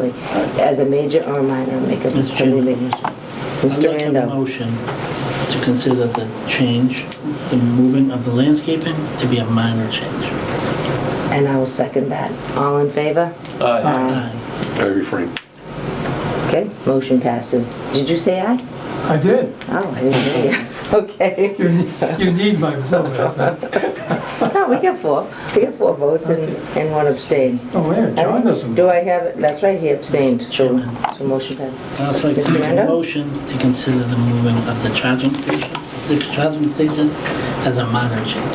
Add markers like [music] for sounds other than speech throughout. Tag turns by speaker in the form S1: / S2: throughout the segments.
S1: absolutely. As a major or minor, make a
S2: Mr.
S1: determination.
S2: Chairman.
S1: Mr.
S2: I'd like to have a
S1: Rando,
S2: motion to consider the change, the moving of the landscaping to be a minor change.
S1: and I will second that. All in favor?
S3: Aye.
S2: Aye.
S4: I refrain.
S1: Okay, motion passes. Did you say aye?
S3: I did.
S1: Oh, I didn't hear you. [laughs] Okay.
S3: You need- you need my vote, I think.
S1: No, we got four. We got four votes and, and one abstain.
S3: Oh, yeah, John doesn't.
S1: Do I have, it? that's right, he abstained, so, so motion passed.
S2: I'd also like to
S1: Mr.
S2: make a
S1: Rando?
S2: motion to consider the moving of the charging station, six charging station, as a minor change.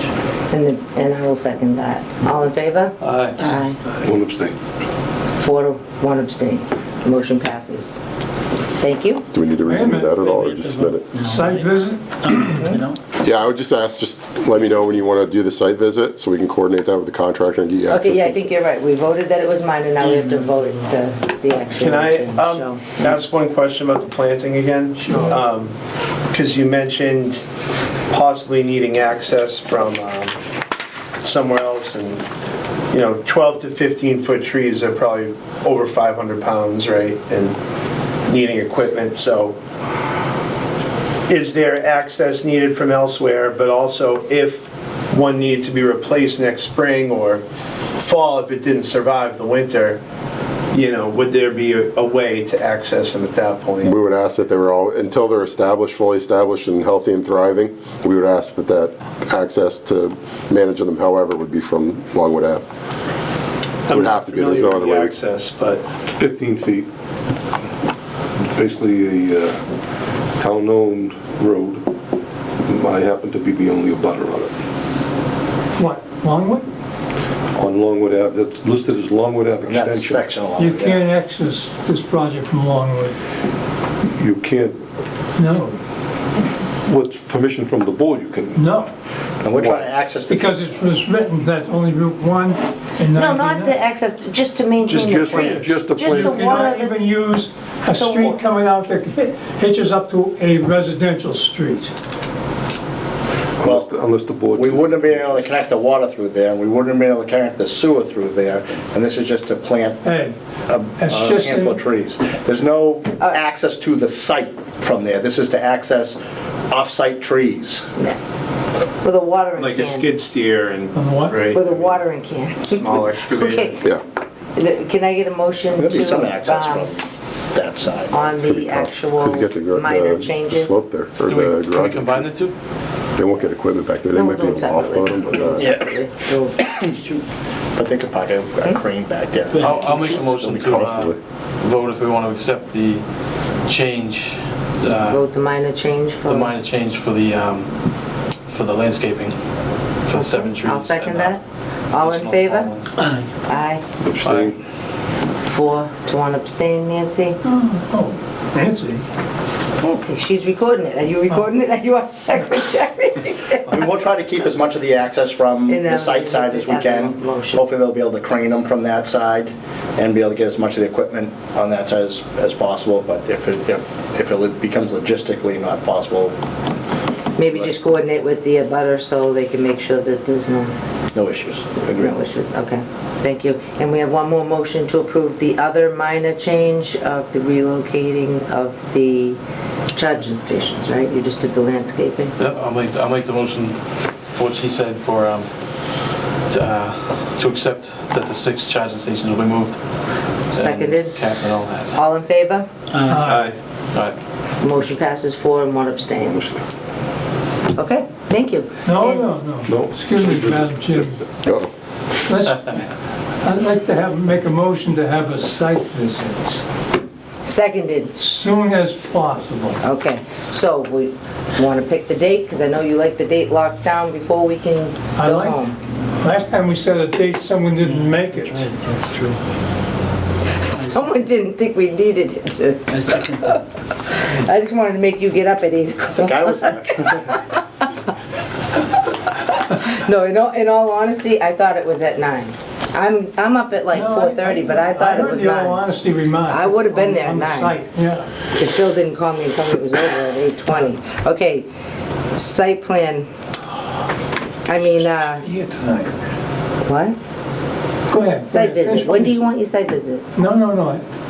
S1: And, the- and I will second that. All in favor?
S3: Aye.
S1: Aye.
S4: One abstain.
S1: Four to one abstain. Motion passes. Thank you.
S5: Do we need to
S3: Wait a
S5: review that at
S3: minute.
S5: all, or just submit it?
S3: Site visit?
S1: Hmm?
S2: Um, You know?
S5: Yeah, I would just ask, just let me know when you want to do the site visit, so we can coordinate that with the contractor and get you access.
S1: Okay, yeah, I
S5: to-
S1: think you're right. We voted that it was minor, now we have
S6: Mm-hmm.
S1: to vote the, the actual
S7: Can I
S1: change, so.
S7: um, ask one question about the planting again? Sure. Because you mentioned possibly needing access from um, somewhere else, and, you know, 12 to 15-foot trees are probably over 500 pounds, right? And needing equipment, so is there access needed from elsewhere? But also, if one needed to be replaced next spring or fall, if it didn't survive the winter, you know, would there be a a way to access them at that point?
S5: We would ask that they were all, until they're established, fully established and healthy and thriving, we would ask that that access to managing them however would be from Longwood Ave.
S7: I'm
S5: would
S7: not
S5: have to be, there's no
S7: familiar
S5: other
S7: with the
S5: way.
S7: Access, but,
S4: 15 feet. Basically a uh, town-owned road. I happen to be the only abutter on it.
S3: What, Longwood?
S4: On Longwood Ave, that's listed as Longwood Ave
S6: That
S4: Extension.
S6: section along.
S3: You
S6: there.
S3: can't access this project from Longwood.
S4: You can't,
S3: No,
S4: with permission from the board, you can.
S3: no,
S6: And we're trying to access the.
S3: because it was written that only Route 1 and 99.
S1: No, not to access, just to maintain
S4: Just-
S1: the
S4: just-
S1: trees.
S4: just to
S3: You
S4: plant-
S1: to
S3: cannot
S1: water
S3: even use a street coming out that hitches up to a residential street.
S4: Unless the- Unless the board.
S6: We wouldn't have been able to connect the water through there, and we wouldn't have been able to connect the sewer through there, and this is just to plant
S3: Hey, it's
S6: a
S3: just,
S6: handful
S3: in-
S6: of trees. There's no
S1: Uh,
S6: access to the site from there. This is to access off-site trees.
S1: the- with a watering
S7: like a
S1: can.
S7: skid steer and,
S3: On what?
S7: right?
S1: With a watering can.
S7: Small
S1: Okay,
S7: excavator.
S5: Yeah,
S1: can I get a motion
S6: There'll be
S1: to,
S6: some access
S1: um,
S6: from that side.
S1: on
S5: it's gonna be
S1: the
S5: tough. 'cause you get the
S1: actual
S5: gr- the
S1: minor changes?
S5: Slope there, or the garage.
S8: combine the two?
S5: They won't get equipment back there, they
S1: No,
S5: might be
S1: we'll do
S5: able
S1: it
S5: to offload them, but, uh,
S6: Yeah,
S1: Separately.
S6: but they could park a
S1: Hmm?
S6: a crane back there.
S8: I'll, I'll make a motion to uh,
S5: Possibly.
S8: vote if we want to accept the change, uh,
S1: Vote the minor change for...
S8: the minor change for the, um, for the landscaping, for the seven trees.
S1: I'll second
S8: and, uh,
S1: that. All in
S8: additional small
S1: favor?
S8: ones.
S2: Aye.
S1: Aye.
S4: abstain.
S1: Four to one abstain, Nancy.
S3: oh, Nancy.
S1: Nancy, she's recording it. Are you recording it? [laughs] Are you our secretary?
S6: I mean, we'll try to keep as much of the access from
S1: And then
S6: the site side as we
S1: we'll do
S6: can.
S1: that motion.
S6: Hopefully, they'll be able to crane them from that side and be able to get as much of the equipment on that side as, as possible, but if it, if, if it becomes logistically not possible,
S1: Maybe just coordinate with the abutter so they can make sure that there's no,
S6: no issues.
S1: no issues. Okay, thank you. And we have one more motion to approve the other minor change of the relocating of the charging stations, right? You just did the landscaping?
S8: Yep, I'll make, I'll make the motion for what she said for, um, to, uh, to accept that the six charging stations will be moved. and
S1: Seconded.
S8: Cap and all that.
S1: All in favor?
S3: Uh,
S7: Aye.
S8: All right.
S1: Motion passes four and one abstain.
S4: Obviously.
S1: Okay, thank you.
S3: No,
S1: And-
S3: no, no.
S4: No.
S3: Excuse me, Madam Chairman.
S5: uh,
S3: Let's, I'd like to have, make a motion to have a site visit
S1: Seconded.
S3: soon as possible.
S1: Okay, so we want to pick the date, because I know you like the date locked down before we can
S3: I
S1: go
S3: liked,
S1: home.
S3: last time we set a date, someone didn't make it.
S2: That's true.
S1: [laughs] Someone didn't think we needed it.
S2: I second.
S1: I just wanted to make you get up at 8 o'clock.
S6: I think I was there.
S1: No, in all, in all honesty, I thought it was at 9. I'm, I'm up at like
S3: No, I-
S1: 4:30, but I thought it was
S3: I heard the all
S1: 9.
S3: honesty remark.
S1: I would've been there at
S3: on the
S1: nine.
S3: site, Yeah.
S1: Because Phil didn't call me and tell me it was over at 8:20. Okay, site plan. I mean, uh,
S8: Here tonight.
S1: what?
S3: Go ahead.
S1: Site
S3: finish
S1: visit.
S3: what
S1: When do
S3: you're
S1: you want your site visit?
S3: saying. No, no, no.